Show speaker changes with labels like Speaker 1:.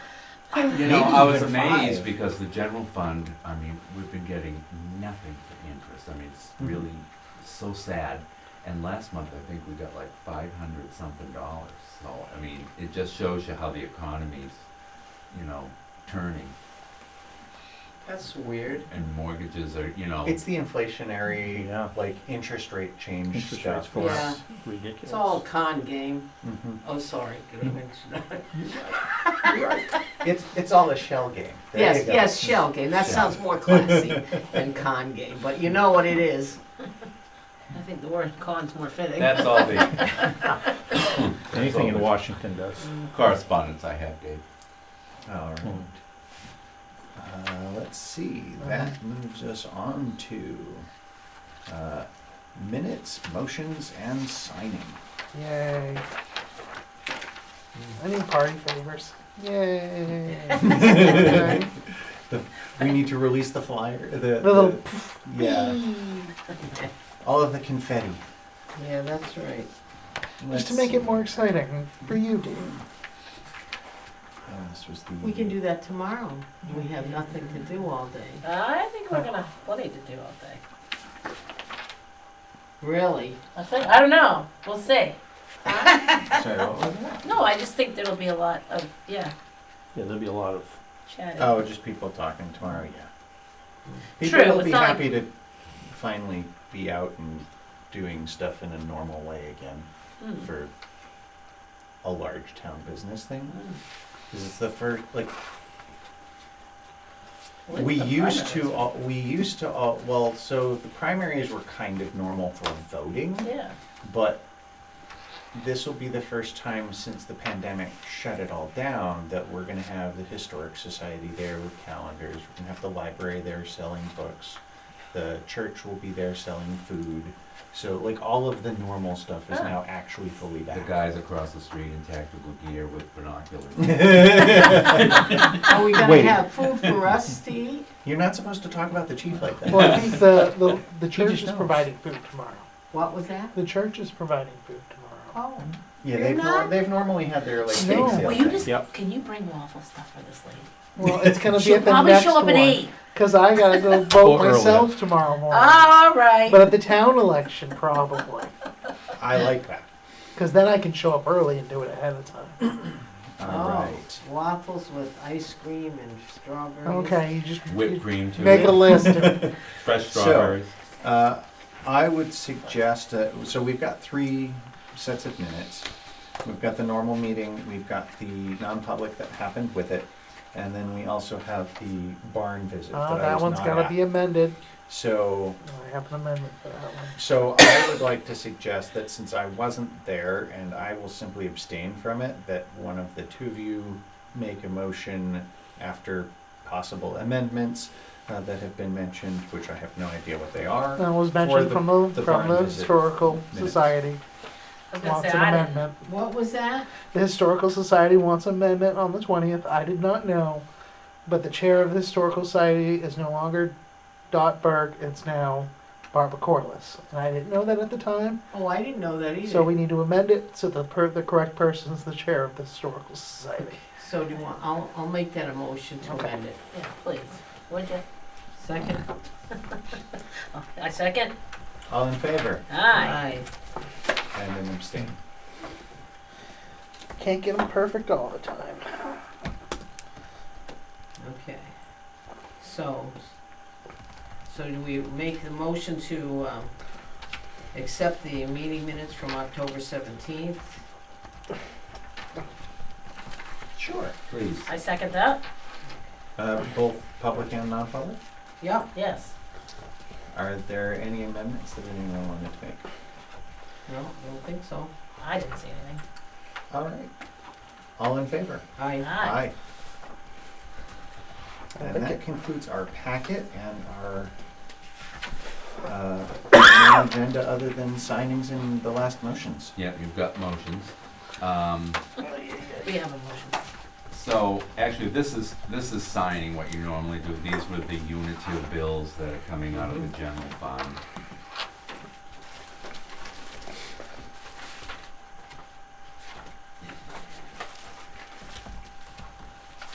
Speaker 1: I'm
Speaker 2: You know, I was
Speaker 1: maybe even
Speaker 2: amazed
Speaker 1: five.
Speaker 2: because the general fund, I mean, we've been getting nothing for interest. I mean, it's
Speaker 1: Mhm.
Speaker 2: really so sad. And last month, I think we got like five hundred something dollars. So, I mean, it just shows you how the economy's, you know, turning
Speaker 1: That's weird.
Speaker 2: and mortgages are, you know,
Speaker 3: It's the inflationary,
Speaker 4: Yeah.
Speaker 3: like interest rate change
Speaker 4: Interest rates
Speaker 3: stuff.
Speaker 4: for
Speaker 1: Yeah.
Speaker 4: us, ridiculous.
Speaker 1: It's all con game.
Speaker 3: Mhm.
Speaker 1: Oh, sorry. Did I mention that?
Speaker 3: It's it's all a shell game. There you
Speaker 1: Yes,
Speaker 3: go.
Speaker 1: yes, shell game. That sounds more classy than con game, but you know what it is. I think the word con's more fitting.
Speaker 2: that's all the
Speaker 4: Anything in
Speaker 2: all.
Speaker 4: Washington does.
Speaker 2: correspondence I have, Dave.
Speaker 3: All right.
Speaker 4: Mm.
Speaker 3: Uh, let's see. That moves us on to uh, minutes, motions, and signing.
Speaker 5: Yay. I need party favors. Yay.
Speaker 1: Mm.
Speaker 5: Okay.
Speaker 3: We need to release the flyer. The,
Speaker 5: The little
Speaker 3: yeah. All of the confetti.
Speaker 1: Yeah, that's right.
Speaker 5: Just to make it more exciting for you, Dave.
Speaker 3: Oh, this was the.
Speaker 1: We can do that tomorrow. We have nothing to do all day.
Speaker 6: I think we're gonna have plenty to do all day.
Speaker 1: Really?
Speaker 6: I think I don't know. We'll see.
Speaker 3: Sorry, what was that?
Speaker 6: No, I just think there'll be a lot of yeah
Speaker 4: Yeah, there'll be a lot of,
Speaker 6: chatting.
Speaker 3: Oh, just people talking tomorrow. Yeah. People
Speaker 6: True,
Speaker 3: will
Speaker 6: it's
Speaker 3: be
Speaker 6: not like-
Speaker 3: happy to finally be out and doing stuff in a normal way again
Speaker 6: Hmm.
Speaker 3: for a large town business thing.
Speaker 6: Hmm.
Speaker 3: Because it's the first like
Speaker 6: When's
Speaker 3: we
Speaker 6: the
Speaker 3: used to
Speaker 6: primaries?
Speaker 3: all, we used to all well so the primaries were kind of normal for voting
Speaker 6: Yeah.
Speaker 3: but this will be the first time since the pandemic shut it all down that we're going to have the historic society there with calendars we're going to have the library there selling books the church will be there selling food so like all of the normal stuff is
Speaker 1: Oh.
Speaker 6: Ah.
Speaker 3: now actually fully back
Speaker 2: The guys across the street in tactical gear with binoculars.
Speaker 5: Oh,
Speaker 1: Are we gonna
Speaker 4: Wait.
Speaker 1: have food for us to eat?
Speaker 3: you're not supposed to talk about the chief like that
Speaker 5: Well, I think the, the, the church
Speaker 3: just
Speaker 5: is
Speaker 3: knows.
Speaker 5: providing food tomorrow.
Speaker 1: What was that?
Speaker 5: The church is providing food tomorrow.
Speaker 1: Oh,
Speaker 3: yeah
Speaker 1: You're
Speaker 3: they've, nor-
Speaker 1: not?
Speaker 3: they've normally had their like
Speaker 5: No.
Speaker 3: bake sale
Speaker 6: Will you
Speaker 3: thing.
Speaker 6: just
Speaker 4: Yep.
Speaker 6: can you bring waffle stuff for this lady?
Speaker 5: Well, it's gonna be
Speaker 6: She'll
Speaker 5: at the
Speaker 6: probably
Speaker 5: next
Speaker 6: show up
Speaker 5: one.
Speaker 6: at eight.
Speaker 5: Cause I gotta go
Speaker 4: Or
Speaker 5: vote
Speaker 4: earlier.
Speaker 5: myself tomorrow morning.
Speaker 6: All right.
Speaker 5: But at the town election, probably.
Speaker 3: i like that
Speaker 5: Cause then I can show up early and do it ahead of time.
Speaker 3: all
Speaker 1: Oh,
Speaker 3: right
Speaker 1: Waffles with ice cream and strawberries.
Speaker 5: Okay, you just you
Speaker 2: Whipped cream too.
Speaker 5: make a list. Oh,
Speaker 2: Fresh
Speaker 3: So-
Speaker 2: strawberries.
Speaker 3: Uh, I would suggest, uh, so we've got three sets of minutes. We've got the normal meeting, we've got the non-public that happened with it, and then we also have the barn visit.
Speaker 5: Uh,
Speaker 3: I
Speaker 5: that
Speaker 3: was
Speaker 5: one's
Speaker 3: not
Speaker 5: gotta
Speaker 3: at.
Speaker 5: be amended.
Speaker 3: So,
Speaker 5: I have an amendment for that one.
Speaker 3: so I would like to suggest that since I wasn't there and I will simply abstain from it, that one of the two of you make a motion after possible amendments uh, that have been mentioned, which I have no idea what they are.
Speaker 5: That was
Speaker 3: the-
Speaker 5: mentioned from the,
Speaker 3: the
Speaker 5: from
Speaker 3: barn
Speaker 5: the
Speaker 3: visit
Speaker 5: Historical
Speaker 3: minutes.
Speaker 5: Society
Speaker 6: I was gonna
Speaker 5: wants
Speaker 6: say
Speaker 5: an
Speaker 6: I didn't.
Speaker 5: amendment.
Speaker 1: What was that?
Speaker 5: The Historical Society wants amendment on the twentieth. I did not know, but the chair of the Historical Society is no longer Dot Berg. It's now Barbara Corliss, and I didn't know that at the time.
Speaker 1: Oh, I didn't know that either.
Speaker 5: So we need to amend it so the per, the correct person is the chair of the Historical Society.
Speaker 1: So do you want, I'll, I'll make that a motion to
Speaker 5: Okay.
Speaker 1: amend it.
Speaker 6: Yeah, please. Would you?
Speaker 1: Second?
Speaker 6: I second.
Speaker 3: All in favor?
Speaker 6: Aye.
Speaker 3: And an abstain.
Speaker 5: Can't get them perfect all the time.
Speaker 1: Okay. So, so do we make the motion to, um, accept the meeting minutes from October seventeenth?
Speaker 3: Sure.
Speaker 2: Please.
Speaker 6: I second that.
Speaker 3: Uh, both public and non-public?
Speaker 1: Yeah.
Speaker 6: Yes.
Speaker 3: Are there any amendments that anyone wanted to make?
Speaker 1: No, I don't think so.
Speaker 6: I didn't see anything.
Speaker 3: All right. All in favor?
Speaker 1: I,
Speaker 6: Aye.
Speaker 5: I
Speaker 3: And
Speaker 5: think
Speaker 3: that
Speaker 5: it-
Speaker 3: concludes our packet and our, uh, main agenda other than signings and the last motions.
Speaker 2: Yeah, you've got motions. Um,
Speaker 6: We have a motion.
Speaker 2: So, actually, this is, this is signing what you normally do. These were the unitive bills that are coming out of the general fund.